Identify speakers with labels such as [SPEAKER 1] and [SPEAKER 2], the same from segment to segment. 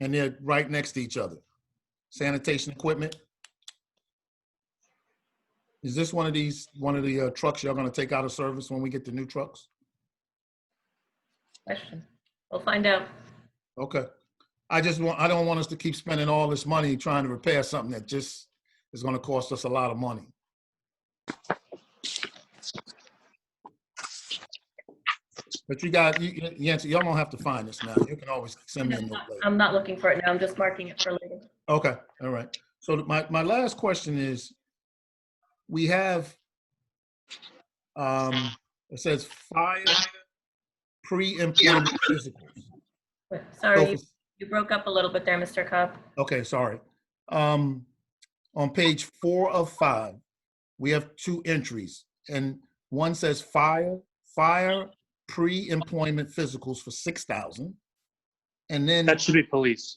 [SPEAKER 1] and they're right next to each other. Sanitation equipment. Is this one of these, one of the uh, trucks y'all gonna take out of service when we get the new trucks?
[SPEAKER 2] Question. We'll find out.
[SPEAKER 1] Okay. I just want, I don't want us to keep spending all this money trying to repair something that just is gonna cost us a lot of money. But you got, you, you- Yancy, y'all don't have to find this now. You can always send me a note later.
[SPEAKER 2] I'm not looking for it now. I'm just marking it for later.
[SPEAKER 1] Okay, all right. So th- my, my last question is, we have, um, it says fire, pre-employment physicals.
[SPEAKER 2] Wait,
[SPEAKER 1] So
[SPEAKER 2] Sorry,
[SPEAKER 1] for-
[SPEAKER 2] you broke up a little bit there, Mr. Cobb.
[SPEAKER 1] Okay, sorry. Um, on page four of five, we have two entries. And one says fire, fire pre-employment physicals for six thousand. And then,
[SPEAKER 3] That should be police.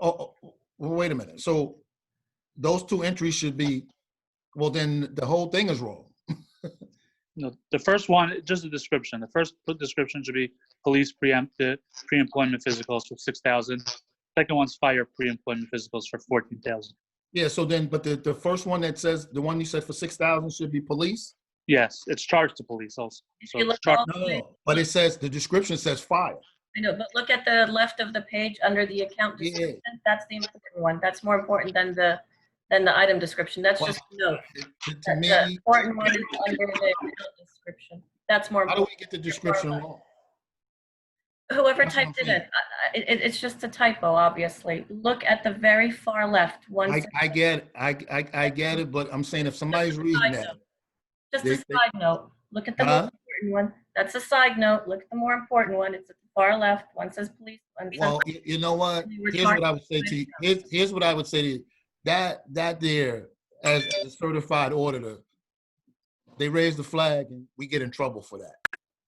[SPEAKER 1] oh, oh, oh, wait a minute. So those two entries should be, well, then the whole thing is wrong.
[SPEAKER 3] No, the first one, just a description. The first pl- description should be police preempt, the pre-employment physicals for six thousand. Second one's fire pre-employment physicals for fourteen thousand.
[SPEAKER 1] Yeah, so then, but the, the first one that says, the one you said for six thousand should be police?
[SPEAKER 3] Yes, it's charged to police also. So
[SPEAKER 2] You
[SPEAKER 3] it's
[SPEAKER 2] look
[SPEAKER 3] char-
[SPEAKER 2] all
[SPEAKER 1] No,
[SPEAKER 2] the
[SPEAKER 1] no,
[SPEAKER 2] way-
[SPEAKER 1] no. But it says, the description says fire.
[SPEAKER 2] I know, but look at the left of the page under the account
[SPEAKER 1] Yeah.
[SPEAKER 2] description. That's the important one. That's more important than the, than the item description. That's
[SPEAKER 1] Well,
[SPEAKER 2] just a note.
[SPEAKER 1] To- To
[SPEAKER 2] The-
[SPEAKER 1] me,
[SPEAKER 2] The important one is under the account description. That's more,
[SPEAKER 1] how do
[SPEAKER 2] important.
[SPEAKER 1] we get the description wrong?
[SPEAKER 2] whoever
[SPEAKER 1] that's what I'm
[SPEAKER 2] typed it in,
[SPEAKER 1] saying.
[SPEAKER 2] I- I- it, it's just a typo, obviously. Look at the very far left, one.
[SPEAKER 1] I,
[SPEAKER 2] sentence.
[SPEAKER 1] I get, it. I, I, I get it, but I'm saying if somebody's reading
[SPEAKER 2] side
[SPEAKER 1] that,
[SPEAKER 2] note. Just
[SPEAKER 1] They- Uh-huh.
[SPEAKER 2] a
[SPEAKER 1] they-
[SPEAKER 2] side note. Look at the more
[SPEAKER 1] Huh?
[SPEAKER 2] important one. That's a side note. Look at the more important one. It's at the far left. One says police, one says.
[SPEAKER 1] well, you, you know what?
[SPEAKER 2] We were
[SPEAKER 1] Here's what I
[SPEAKER 2] talking-
[SPEAKER 1] would say to you, here's, here's what I would say to you, that, that there, as a certified auditor, they raise the flag and we get in trouble for that.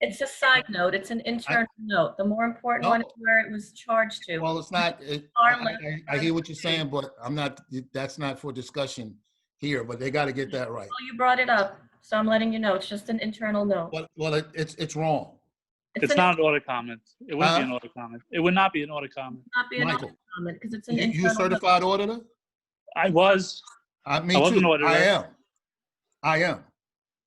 [SPEAKER 2] It's a side note. It's an internal note. The more important one is
[SPEAKER 1] No.
[SPEAKER 2] where it was charged to.
[SPEAKER 1] Well, it's not, it,
[SPEAKER 2] Our
[SPEAKER 1] I, I- I hear what you're saying, but I'm not, that's not for discussion here, but they gotta get that right.
[SPEAKER 2] Well, you brought it up, so I'm letting you know. It's just an internal note.
[SPEAKER 1] But, well, it- it's, it's wrong.
[SPEAKER 3] it's
[SPEAKER 2] an-
[SPEAKER 3] not an audit comment. It wouldn't be
[SPEAKER 1] Huh?
[SPEAKER 3] an audit comment. It would not be an audit comment.
[SPEAKER 2] Not be an
[SPEAKER 1] Michael,
[SPEAKER 2] comment because it's an
[SPEAKER 1] you you a
[SPEAKER 2] internal. note.
[SPEAKER 1] certified auditor?
[SPEAKER 3] I was,
[SPEAKER 1] I me
[SPEAKER 3] I was an
[SPEAKER 1] too.
[SPEAKER 3] auditor.
[SPEAKER 1] I am. I am.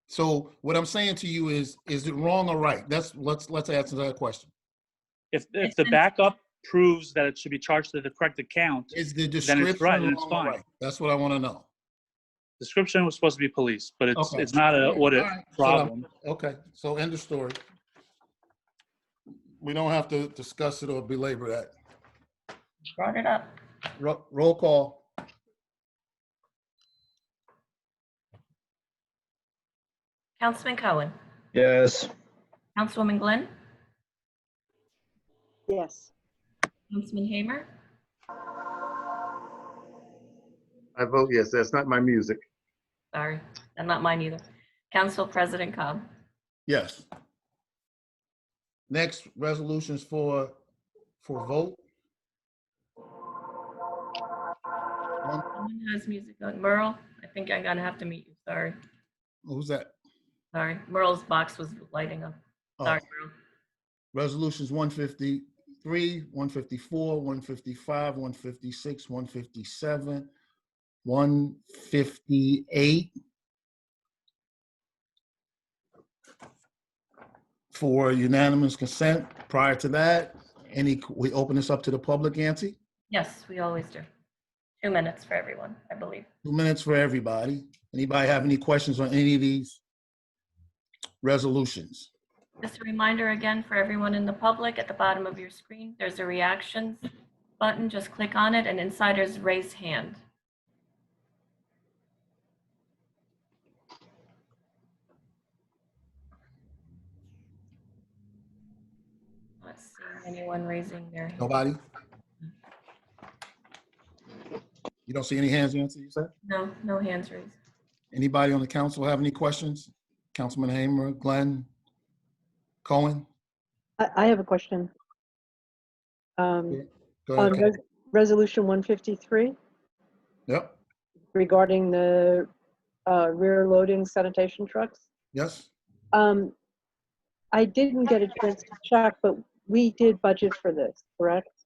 [SPEAKER 1] So what I'm saying to you is, is it wrong or right? That's let's let's answer that question.
[SPEAKER 3] if, if
[SPEAKER 2] It's
[SPEAKER 3] the
[SPEAKER 2] an-
[SPEAKER 3] backup proves that it should be charged to the correct account,
[SPEAKER 1] Is the
[SPEAKER 3] it's
[SPEAKER 1] description
[SPEAKER 3] right, then it's
[SPEAKER 1] wrong or
[SPEAKER 3] fine.
[SPEAKER 1] right? That's what I want to know.
[SPEAKER 3] description was supposed to be police, but it's,
[SPEAKER 1] Okay.
[SPEAKER 3] it's not an audit
[SPEAKER 1] All right, so I'm-
[SPEAKER 3] problem.
[SPEAKER 1] Okay, so end of story. We don't have to discuss it or belabor that.
[SPEAKER 2] Brought it up.
[SPEAKER 1] Ro- Roll call.
[SPEAKER 2] Councilman Cohen,
[SPEAKER 4] Yes.
[SPEAKER 2] Councilwoman Glenn,
[SPEAKER 5] Yes.
[SPEAKER 2] Councilman Hamer,
[SPEAKER 6] I vote yes. That's not my music.
[SPEAKER 2] sorry, and not mine either. Council President Cobb.
[SPEAKER 1] Yes. Next resolutions for for vote.
[SPEAKER 2] Someone has music on. Merle, I think I'm gonna have to meet you. Sorry,
[SPEAKER 1] Who's that?
[SPEAKER 2] sorry. Merle's box was lighting up.
[SPEAKER 1] Oh.
[SPEAKER 2] Sorry, Merle.
[SPEAKER 1] Resolutions one fifty-three, one fifty-four, one fifty-five, one fifty-six, one fifty-seven, one fifty-eight. For unanimous consent. Prior to that, any, we open this up to the public, Yancy?
[SPEAKER 2] Yes, we always do. Two minutes for everyone, I believe.
[SPEAKER 1] Two minutes for everybody. Anybody have any questions on any of these resolutions?
[SPEAKER 2] Just a reminder again for everyone in the public, at the bottom of your screen, there's a reactions button. Just click on it and insiders raise hand. Not seeing anyone raising their hand.
[SPEAKER 1] Nobody? You don't see any hands, Yancy, you said?
[SPEAKER 2] No, no hands raised.
[SPEAKER 1] Anybody on the council have any questions? Councilman Hamer, Glenn, Cohen?
[SPEAKER 5] I, I have a question. Um,
[SPEAKER 1] Go
[SPEAKER 5] On
[SPEAKER 1] ahead. Ken.
[SPEAKER 5] res- Resolution 153
[SPEAKER 1] Yep,
[SPEAKER 5] regarding the uh, rear loading sanitation trucks.
[SPEAKER 1] yes.
[SPEAKER 5] Um, I didn't get a chance to check, but we did budget for this, correct?